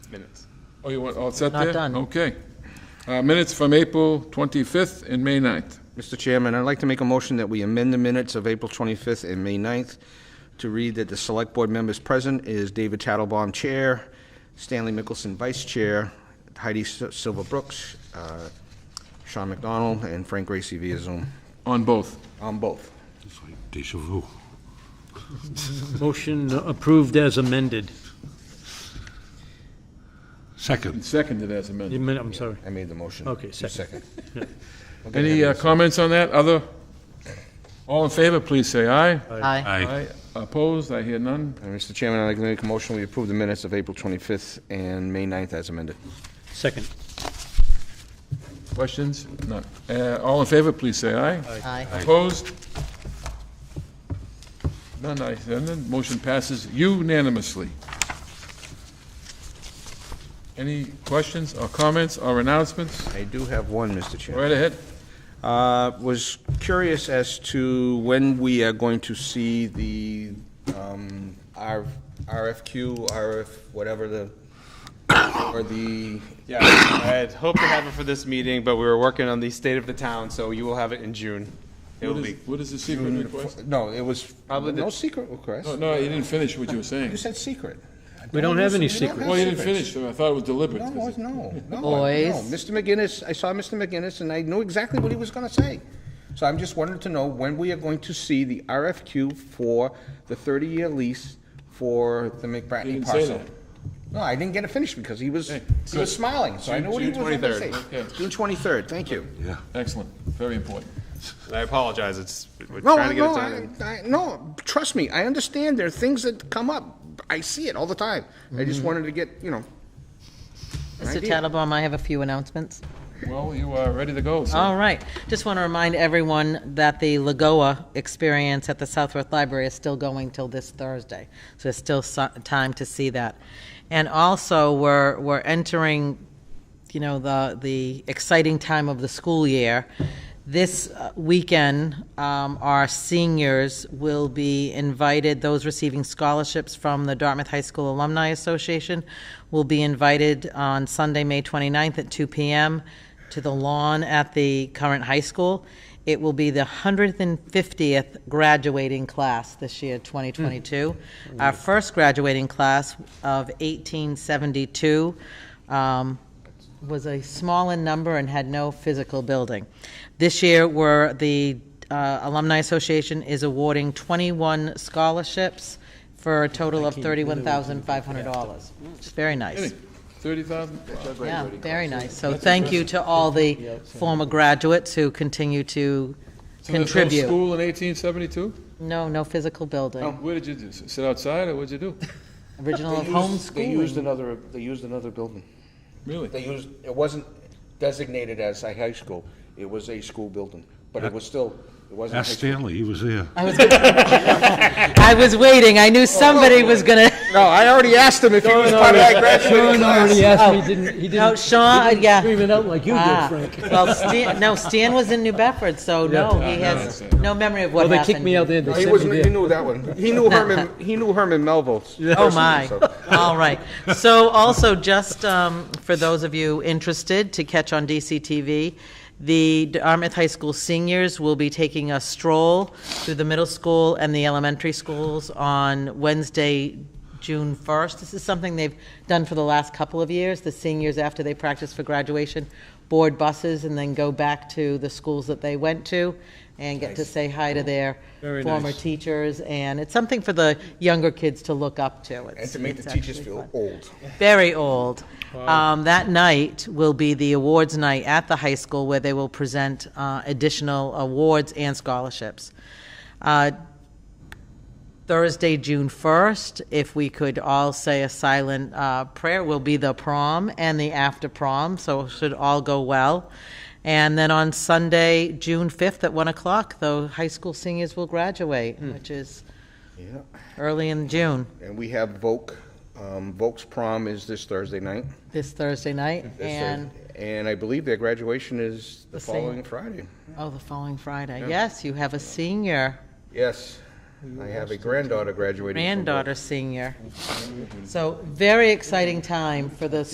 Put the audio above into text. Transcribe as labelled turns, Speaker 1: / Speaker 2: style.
Speaker 1: minutes.
Speaker 2: Oh, you want, all set
Speaker 3: Not
Speaker 2: there?
Speaker 3: done.
Speaker 2: Okay. Uh, Minutes from April 25th and May 9th.
Speaker 4: Mr. Chairman, I'd like to make a motion that we amend the minutes of April 25th and May 9th to read that the Select Board members present is David Tattlebaum, Chair, Stanley Mickelson, Vice Chair, Heidi S- Silva Brooks, uh, Sean McDonald, and Frank Gracie via Zoom,
Speaker 2: On both.
Speaker 4: on both.
Speaker 5: It's like deja vu.
Speaker 3: Motion approved as amended.
Speaker 5: Second,
Speaker 2: Seconded as amended.
Speaker 3: Amen- I'm sorry.
Speaker 4: I made the motion.
Speaker 3: Okay,
Speaker 4: You
Speaker 3: second.
Speaker 4: Okay,
Speaker 2: Any uh,
Speaker 4: Henry,
Speaker 2: comments on that? Other? All in favor, please say aye.
Speaker 3: Aye.
Speaker 5: aye.
Speaker 2: Aye. Opposed? I hear none.
Speaker 4: Uh, Mr. Chairman, I'd like to make a motion, we approve the minutes of April 25th and May 9th as amended.
Speaker 3: Second.
Speaker 2: Questions? None. Uh, All in favor, please say aye.
Speaker 3: Aye.
Speaker 2: Opposed? None, I, none. Motion passes unanimously. Any questions or comments or announcements?
Speaker 4: I do have one, Mr. Chairman.
Speaker 2: Right ahead.
Speaker 4: Uh, Was curious as to when we are going to see the um, R- RFQ, RF, whatever the, or the,
Speaker 1: Yeah, I had hoped to have it for this meeting, but we were working on the state of the town, so you will have it in June. It will
Speaker 2: What is-
Speaker 1: be,
Speaker 2: What is the secret request?
Speaker 4: no, it was,
Speaker 1: Probably the-
Speaker 4: no secret request.
Speaker 2: No, No, you didn't finish what you were saying.
Speaker 4: You said secret.
Speaker 3: We don't have any
Speaker 4: We don't
Speaker 3: secrets.
Speaker 4: have
Speaker 2: Well, you didn't
Speaker 4: secrets.
Speaker 2: finish, so I thought it was deliberate.
Speaker 4: No, it was- no, no.
Speaker 1: Oh,
Speaker 6: Boys.
Speaker 4: no. Mr. McGinnis, I saw Mr. McGinnis, and I knew exactly what he was going to say. So I'm just wanting to know when we are going to see the RFQ for the 30-year lease for the
Speaker 2: You
Speaker 4: McBratney
Speaker 2: didn't say
Speaker 4: parcel.
Speaker 2: that.
Speaker 4: No, I didn't get it finished because he was,
Speaker 2: Hey,
Speaker 4: he was smiling, so I
Speaker 2: June-
Speaker 4: knew what he was
Speaker 2: June
Speaker 4: going to
Speaker 2: 23rd,
Speaker 4: say.
Speaker 2: okay.
Speaker 4: June 23rd, thank you.
Speaker 5: Yeah.
Speaker 2: Excellent, very important.
Speaker 1: I apologize, it's, we're
Speaker 4: No,
Speaker 1: trying
Speaker 4: I-
Speaker 1: to get it
Speaker 4: no,
Speaker 1: done.
Speaker 4: I,
Speaker 1: and-
Speaker 4: I- no, trust me, I understand there are things that come up. I see it all the time. I
Speaker 1: Mm-hmm.
Speaker 4: just wanted to get, you know, an
Speaker 6: Mr.
Speaker 4: idea.
Speaker 6: Tattlebaum, I have a few announcements.
Speaker 2: Well, you are ready to go, sir.
Speaker 6: All right. Just want to remind everyone that the Lagoa experience at the Southworth Library is still going till this Thursday. So there's still so- time to see that. And also, we're, we're entering, you know, the, the exciting time of the school year. This uh, weekend, um, our seniors will be invited, those receiving scholarships from the Dartmouth High School Alumni Association will be invited on Sunday, May 29th at 2 PM to the lawn at the current high school. It will be the 150th graduating class this year, 2022. Our first graduating class of 1872 um, was a small in number and had no physical building. This year, we're, the uh, Alumni Association is awarding 21 scholarships for a total of $31,500. It's very nice.
Speaker 2: Thirty thousand?
Speaker 6: Yeah, very nice. So thank you to all the
Speaker 3: uh,
Speaker 6: former graduates who continue to
Speaker 2: So there's no
Speaker 6: contribute.
Speaker 2: school in eighteen seventy-two?
Speaker 6: No, no physical
Speaker 3: Oh.
Speaker 6: building,
Speaker 2: Where did you do, s- sit outside, or what'd you do?
Speaker 6: original
Speaker 4: They used- They used
Speaker 6: homeschooling.
Speaker 4: another, they used another building.
Speaker 2: Really?
Speaker 4: They used, it wasn't designated as a high school, it was a school building, but it was still, it wasn't. high
Speaker 5: Ask
Speaker 4: school.
Speaker 5: Stanley, he was there.
Speaker 6: I was waiting, I
Speaker 3: Oh,
Speaker 6: knew somebody was gonna,
Speaker 4: No, I already asked him if he was part of that graduating
Speaker 3: Sean already
Speaker 4: class.
Speaker 3: asked me, didn't, he
Speaker 6: no,
Speaker 3: didn't
Speaker 6: Oh, Sean, yeah.
Speaker 3: scream it out like you did,
Speaker 6: Ah,
Speaker 3: Frank.
Speaker 6: Well, Stan, no, Stan was in New Bedford, so no, he
Speaker 3: Ah,
Speaker 6: has no memory of
Speaker 3: Well,
Speaker 6: what
Speaker 3: they kicked
Speaker 6: happened.
Speaker 3: me out there,
Speaker 4: No,
Speaker 3: they
Speaker 4: He
Speaker 3: sent
Speaker 4: wasn't,
Speaker 3: me
Speaker 4: he
Speaker 3: there.
Speaker 4: knew that one. He knew Herman, he knew Herman Melville.
Speaker 6: Oh,
Speaker 4: personally,
Speaker 6: my.
Speaker 4: so.
Speaker 6: All right. So also, just um, for those of you interested to catch on DCTV, the Dartmouth High School seniors will be taking a stroll through the middle school and the elementary schools on Wednesday, June 1st. This is something they've done for the last couple of years. The seniors, after they practice for graduation, board buses and then go back to the schools that they went to and get to say hi to their
Speaker 3: Oh, Very
Speaker 6: former
Speaker 3: nice.
Speaker 6: teachers. And it's something for the younger kids to look up to. It's-
Speaker 4: And to make the
Speaker 6: it's
Speaker 4: teachers
Speaker 6: actually
Speaker 4: feel
Speaker 6: fun.
Speaker 4: old.
Speaker 6: Very old. Um, That night will be the awards night at the high school where they will present uh, additional awards and scholarships. Uh, Thursday, June 1st, if we could all say a silent uh, prayer, will be the prom and the after prom, so it should all go well. And then on Sunday, June 5th at 1 o'clock, the high school seniors will graduate, which is
Speaker 4: Hmm. Yeah.
Speaker 6: early in June,
Speaker 4: And we have Voke, um, Voke's prom is this Thursday night.
Speaker 6: this Thursday night.
Speaker 4: This
Speaker 6: And
Speaker 4: Thursday. And I believe their graduation is the
Speaker 6: The same.
Speaker 4: following Friday.
Speaker 6: Oh, the following Friday. Yes, you have a senior.
Speaker 4: Yes.
Speaker 7: I have a granddaughter graduating from Berkeley.
Speaker 6: granddaughter senior. So very exciting time for this